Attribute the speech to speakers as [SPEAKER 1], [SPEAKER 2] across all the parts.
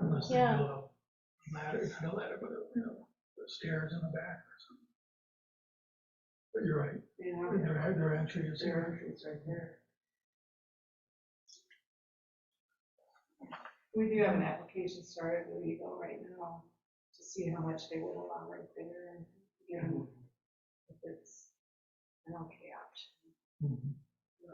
[SPEAKER 1] unless they
[SPEAKER 2] Yeah.
[SPEAKER 1] build a ladder, not a ladder, but, a, you know, stairs in the back or something. But you're right,
[SPEAKER 2] Yeah,
[SPEAKER 1] their, their entry is
[SPEAKER 2] their
[SPEAKER 1] there.
[SPEAKER 2] entrance right there. We do have an application started with Eagle right now to see how much they would allow right there and, you know, if it's an okay option.
[SPEAKER 1] Mhm.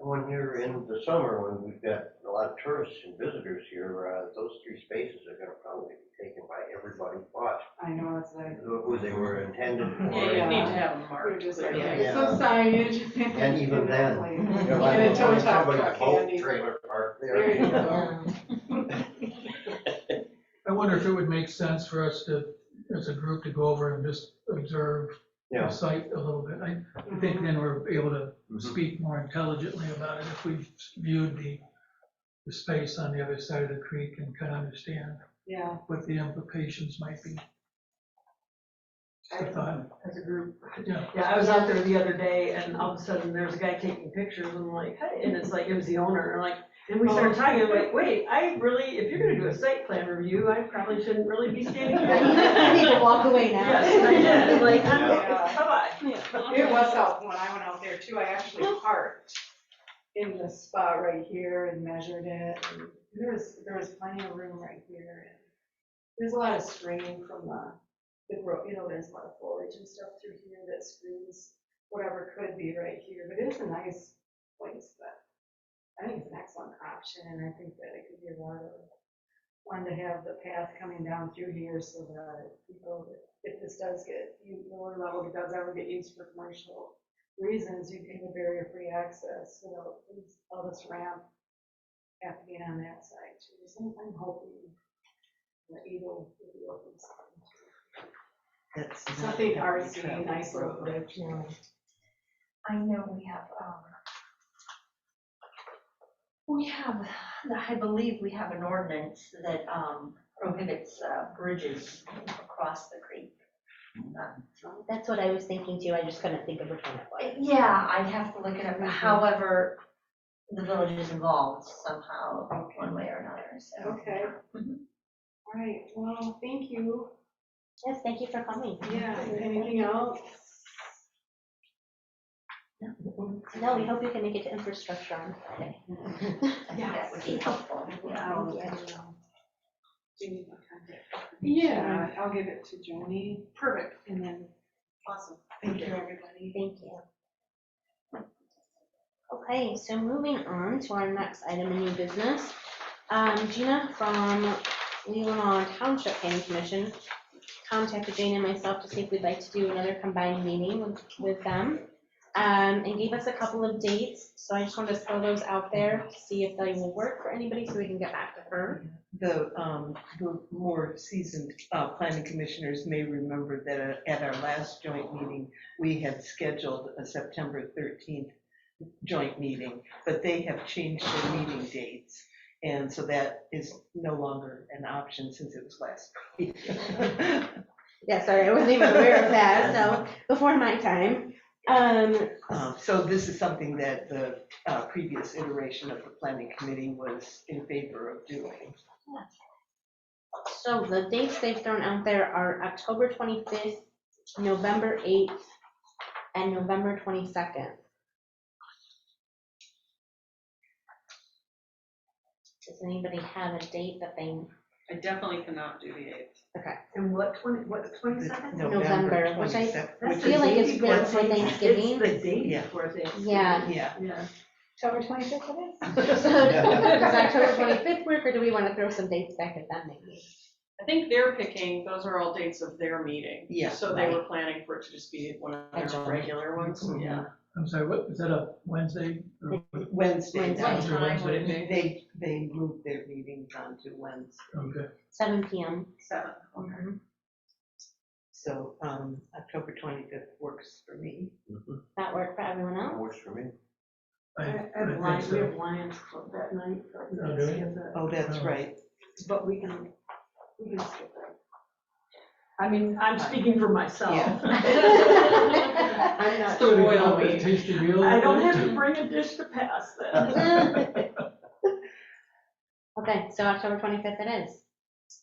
[SPEAKER 3] When you're in the summer, when we've got a lot of tourists and visitors here, uh, those three spaces are gonna probably be taken by everybody but
[SPEAKER 2] I know, it's like,
[SPEAKER 3] who they were intended
[SPEAKER 4] Yeah, you need to
[SPEAKER 3] for.
[SPEAKER 4] have them
[SPEAKER 2] we're
[SPEAKER 4] marked.
[SPEAKER 2] just like,
[SPEAKER 4] clearly.
[SPEAKER 3] Yeah.
[SPEAKER 2] some signage.
[SPEAKER 3] And even then,
[SPEAKER 2] Like,
[SPEAKER 3] You're like,
[SPEAKER 2] And a tow
[SPEAKER 3] "Oh,
[SPEAKER 2] truck
[SPEAKER 3] somebody's
[SPEAKER 2] truck
[SPEAKER 3] boat
[SPEAKER 2] handy."
[SPEAKER 3] Trailer park
[SPEAKER 2] There
[SPEAKER 3] there.
[SPEAKER 2] you go.
[SPEAKER 1] Mm-hmm. I wonder if it would make sense for us to, as a group, to go over and just observe the
[SPEAKER 3] Yeah.
[SPEAKER 1] site a little bit. I
[SPEAKER 2] Mm-hmm.
[SPEAKER 1] I think then we're able to speak more intelligently about it if we've viewed the, the space on the other side of the creek and kind of understand
[SPEAKER 2] Yeah,
[SPEAKER 1] what the implications might be. Just a
[SPEAKER 4] As
[SPEAKER 1] thought,
[SPEAKER 4] a group.
[SPEAKER 1] yeah.
[SPEAKER 4] Yeah, I was out there the other day and all of a sudden there's a guy taking pictures and I'm like, hey, and it's like, it was the owner, and like, and we started talking, I'm like, wait, I really, if you're gonna do a site plan review, I probably shouldn't really be standing
[SPEAKER 5] I need to
[SPEAKER 4] here.
[SPEAKER 5] walk away now.
[SPEAKER 4] Yes, and I did, and like, "Oh,
[SPEAKER 2] Yeah.
[SPEAKER 4] bye-bye.
[SPEAKER 2] It was helpful when I went out there too. I actually parked in this spot right here and measured it. and There was, there was plenty of room right here. and There's a lot of screening from the, the road, you know, there's a lot of foliage and stuff through here that screens whatever could be right here, but it is a nice place, but I think it's an excellent option and I think that it could be a lot of fun to have the path coming down through here so that people that if this does get, you lower level, if it does ever get used for commercial reasons, you can have barrier-free access, you know, things- all this ramp happening on that side too. So I'm hoping that Eagle will be open. soon. Something artsy, nice little bit, you know.
[SPEAKER 5] I know we have, um, we have, I believe we have an ordinance that, um, prohibits, uh, bridges across the creek. Uh,
[SPEAKER 6] That's what I was thinking too, I just couldn't think of which one it was.
[SPEAKER 5] Yeah, I'd have to look it up, however, the village is involved somehow, one way or another, so.
[SPEAKER 2] Okay. All right, well, thank you.
[SPEAKER 6] Yes, thank you for coming.
[SPEAKER 2] Yeah, anything else?
[SPEAKER 6] No, we hope you can make it to infrastructure on Friday.
[SPEAKER 5] I think that would be helpful.
[SPEAKER 2] I'll,
[SPEAKER 6] Yeah.
[SPEAKER 2] um, Do you need my contact? Yeah,
[SPEAKER 5] uh,
[SPEAKER 2] I'll give it to Joni. Perfect. And then, awesome. Thank you, everybody.
[SPEAKER 6] Thank you. Okay, so moving on to our next item in new business. Um, Gina from Leelanau Township Planning Commission contacted Jane and myself to see if we'd like to do another combined meeting with- with them. um, and gave us a couple of dates, so I just wanted to throw those out there, to see if they will work for anybody, so we can get back to her.
[SPEAKER 7] The, um, the more seasoned, uh, planning commissioners may remember that uh, at our last joint meeting, we had scheduled a September thirteenth joint meeting, but they have changed their meeting dates. And so that is no longer an option since it was last week.
[SPEAKER 6] Yeah, sorry, I wasn't even aware of that, so, before my time. Um,
[SPEAKER 7] Um, So this is something that the, uh, previous iteration of the planning committee was in favor of doing.
[SPEAKER 6] So the dates they've thrown out there are October 25th, November 8th, and November 22nd. Does anybody have a date that they,
[SPEAKER 4] I definitely cannot do the eighth.
[SPEAKER 5] And what, twenty, what,
[SPEAKER 7] The
[SPEAKER 5] twenty-second?
[SPEAKER 6] November, which I
[SPEAKER 7] 27th,
[SPEAKER 6] I
[SPEAKER 7] which
[SPEAKER 6] feel
[SPEAKER 7] is-
[SPEAKER 6] like it's right before Thanksgiving?
[SPEAKER 5] It's the day
[SPEAKER 7] Yeah.
[SPEAKER 5] before Thanksgiving.
[SPEAKER 6] yeah.
[SPEAKER 7] Yeah.
[SPEAKER 5] Yeah.
[SPEAKER 2] October twenty-sixth it is?
[SPEAKER 6] So Does October 25th work, or do we want to throw some dates back at them maybe?
[SPEAKER 4] I think they're picking, those are all dates of their meeting.
[SPEAKER 7] Yeah,
[SPEAKER 4] So they were planning for it to just be one of their
[SPEAKER 6] Agenda.
[SPEAKER 4] regular ones,
[SPEAKER 5] Mm-hmm.
[SPEAKER 7] Mhm.
[SPEAKER 4] yeah.
[SPEAKER 1] I'm sorry, what, is that a Wednesday? or-
[SPEAKER 7] Wednesday.
[SPEAKER 6] Wednesday.
[SPEAKER 4] What
[SPEAKER 1] Wednesday,
[SPEAKER 4] time would it be?
[SPEAKER 7] They, they moved their meetings onto Wednesday,
[SPEAKER 1] Okay,
[SPEAKER 6] 7 PM.
[SPEAKER 4] Seven.
[SPEAKER 7] so um, October 25th works for me.
[SPEAKER 3] Mhm.
[SPEAKER 6] That work for everyone
[SPEAKER 3] That
[SPEAKER 6] else?
[SPEAKER 3] works for me.
[SPEAKER 1] I,
[SPEAKER 5] I
[SPEAKER 1] I
[SPEAKER 5] I have
[SPEAKER 1] think
[SPEAKER 5] Lions, we
[SPEAKER 1] so.
[SPEAKER 5] have Lions Club that night, so I
[SPEAKER 1] Oh,
[SPEAKER 5] think that's
[SPEAKER 1] do we?
[SPEAKER 5] the other-
[SPEAKER 7] Oh, that's
[SPEAKER 1] Oh.
[SPEAKER 7] right.
[SPEAKER 5] but we can, we can skip it.
[SPEAKER 4] I mean,
[SPEAKER 7] I'm
[SPEAKER 4] speaking for myself.
[SPEAKER 5] I'm not.
[SPEAKER 4] It's the
[SPEAKER 1] Take
[SPEAKER 4] royal
[SPEAKER 1] out that
[SPEAKER 4] we.
[SPEAKER 1] Tasty meal.
[SPEAKER 4] bring a dish to pass
[SPEAKER 6] Okay, so October 25th it is.